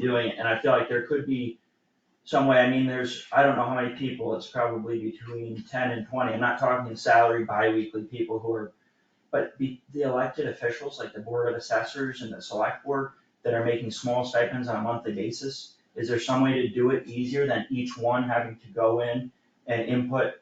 doing it, and I feel like there could be some way, I mean, there's, I don't know how many people, it's probably between ten and twenty, I'm not talking salary bi-weekly people who are, but be, the elected officials, like the board of assessors and the select board, that are making small stipends on a monthly basis, is there some way to do it easier than each one having to go in and input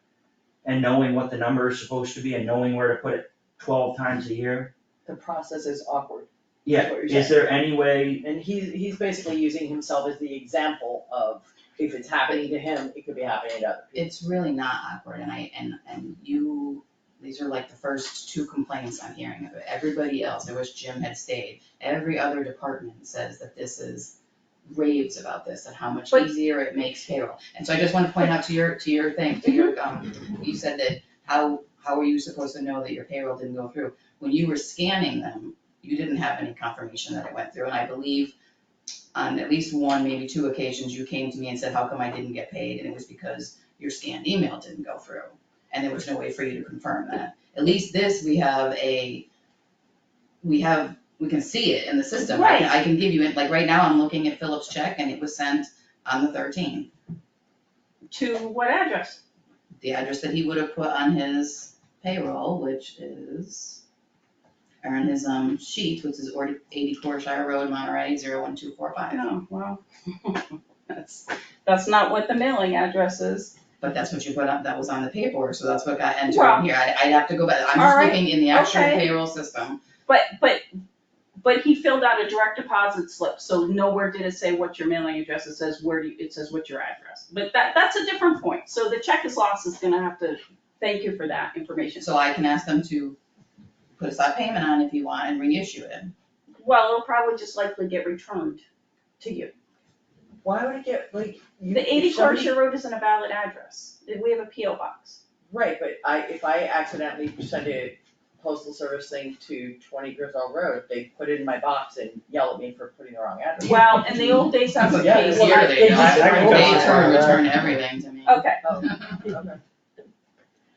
and knowing what the number is supposed to be and knowing where to put it twelve times a year? the process is awkward. Yeah, what you're is there any way, And he's, he's basically using himself as the example of if it's happening to him, it could be happening to other people. it's really not awkward, and I, and, and you, these are like the first two complaints I'm hearing of it. Everybody else, I wish Jim had stayed, every other department says that this is raves about this and how much But- easier it makes payroll. And so I just wanna point out to your, to your thing, to your, um, you said that how, how were you supposed to know that your payroll didn't go through? When you were scanning them, you didn't have any confirmation that it went through, and I believe on at least one, maybe two occasions, you came to me and said, how come I didn't get paid? And it was because your scanned email didn't go through, and there was no way for you to confirm that. At least this, we have a, we have, we can see it in the system. I can- I can give you it, like, right now, I'm looking at Philip's check, and it was sent on the thirteenth. To what address? The address that he would have put on his payroll, which is, or on his, um, sheet, which is ordi- eighty-four Shire Road, Monterey, zero one two four five. Oh, wow. That's, that's not what the mailing address is. But that's what you put up, that was on the paperwork, so that's what got entered Well- in here, I, I'd have to go back, I'm All just right, looking in the actual okay. payroll system. But, but, but he filled out a direct deposit slip, so nowhere did it say what your mailing address, it says where do you, it says what your address. But that, that's a different point, so the check is lost is gonna have to, thank you for that information. So I can ask them to put a stop payment on if you want and reissue it. Well, it'll probably just likely get returned to you. Why would it get, like, you, The eighty if somebody- Shore Road isn't a valid address, we have a PO box. Right, but I, if I accidentally send a postal service thing to twenty Griswold Road, they put it in my box and yell at me for putting the wrong address. Well, in the old days, that's the Yeah, case. well, Here I- they it go. just- They I go by turn, that. return everything to me. Okay, Oh, Okay.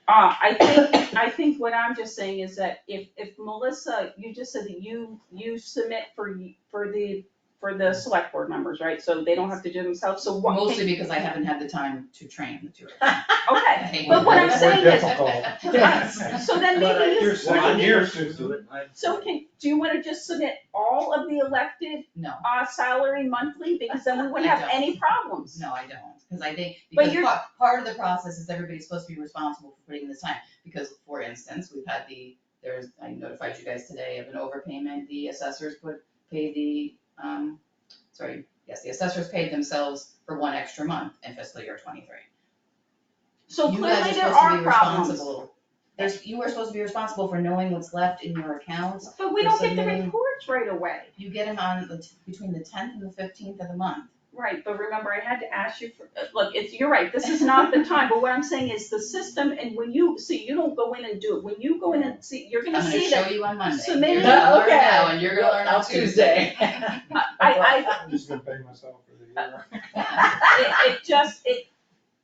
Uh, I think, I think what I'm just saying is that if, if Melissa, you just said that you, you submit for, y- for the, for the select board members, right? So they don't have to do themselves, so what? Mostly because I haven't had the time to train the two of Okay, them. but what I'm saying is- Yes. so then But I maybe you, hear so second you- year. so can, do you wanna just submit all of the elected, No, uh, salary monthly? Because then we wouldn't have any problems. no, I don't, because I think, But because you're- part, part of the process is everybody's supposed to be responsible for putting in this time. Because for instance, we've had the, there's, I notified you guys today of an overpayment, the assessors put, pay the, um, sorry, yes, the assessors paid themselves for one extra month in fiscal year twenty-three. So You guys clearly there supposed to are be problems, responsible. There's, you are supposed to be responsible for knowing what's left in your accounts. but we We're don't get the submitting- reports right away. You get them on the, t- between the tenth and the fifteenth of the month. Right, but remember, I had to ask you for, uh, look, it's, you're right, this is not the time, but what I'm saying is the system, and when you, see, you don't go in and do it, when you go in and see, you're I'm gonna gonna see show that. you on Monday. So You're maybe- gonna learn Okay. now and you're gonna learn on On Tuesday. I, I, I'm just gonna pay myself for the uh, year. it, it just, it,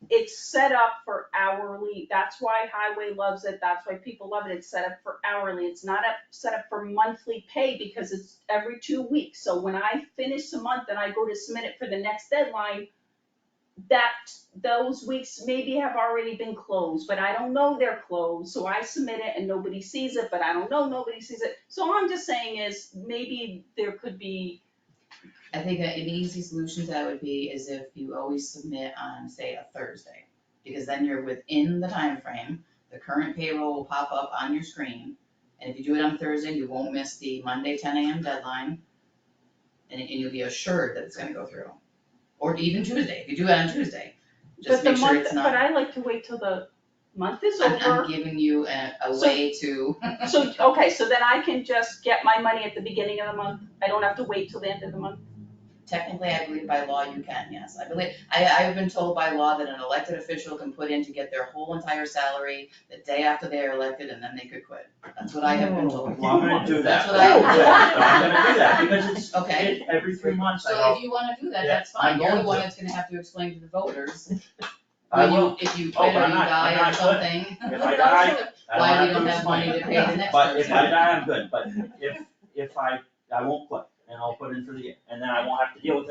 it's set up for hourly, that's why highway loves it, that's why people love it, it's set up for hourly, it's not up, set up for monthly pay, because it's every two weeks, so when I finish the month and I go to submit it for the next deadline, that, those weeks maybe have already been closed, but I don't know they're closed, so I submit it and nobody sees it, but I don't know, nobody sees it, so all I'm just saying is, maybe there could be, I think that an easy solution to that would be is if you always submit on, say, a Thursday. Because then you're within the time frame. the current payroll will pop up on your screen. And if you do it on Thursday, you won't miss the Monday ten AM deadline. And and you'll be assured that it's gonna go through. Or even Tuesday, if you do it on Tuesday, but just the make sure month, it's but not. I like to wait till the month is over. I'm, I'm giving you a, a So- way to. So, okay, so then I can just get my money at the beginning of the month, I don't have to wait till the end of the month? Technically, I believe by law you can, yes. I believe, I, I've been told by law that an elected official can put in to get their whole entire salary the day after they are elected and then they could quit. That's what I have been told. I'm gonna do that. Oh, That's what I- I'm gonna do that, because it's, Okay. it- every three months I So go, if you wanna do that, Yeah, that's fine. I'm You're the going one to. that's gonna have to explain to the voters. I when you- will, If you Oh, quit or I'm you not- I'm die or not something. if I die, I Why we to don't lose have money to pay the next But if I person. die, I'm good, but if, if I, I won't quit, and I'll put in for the year, and then I won't have to deal with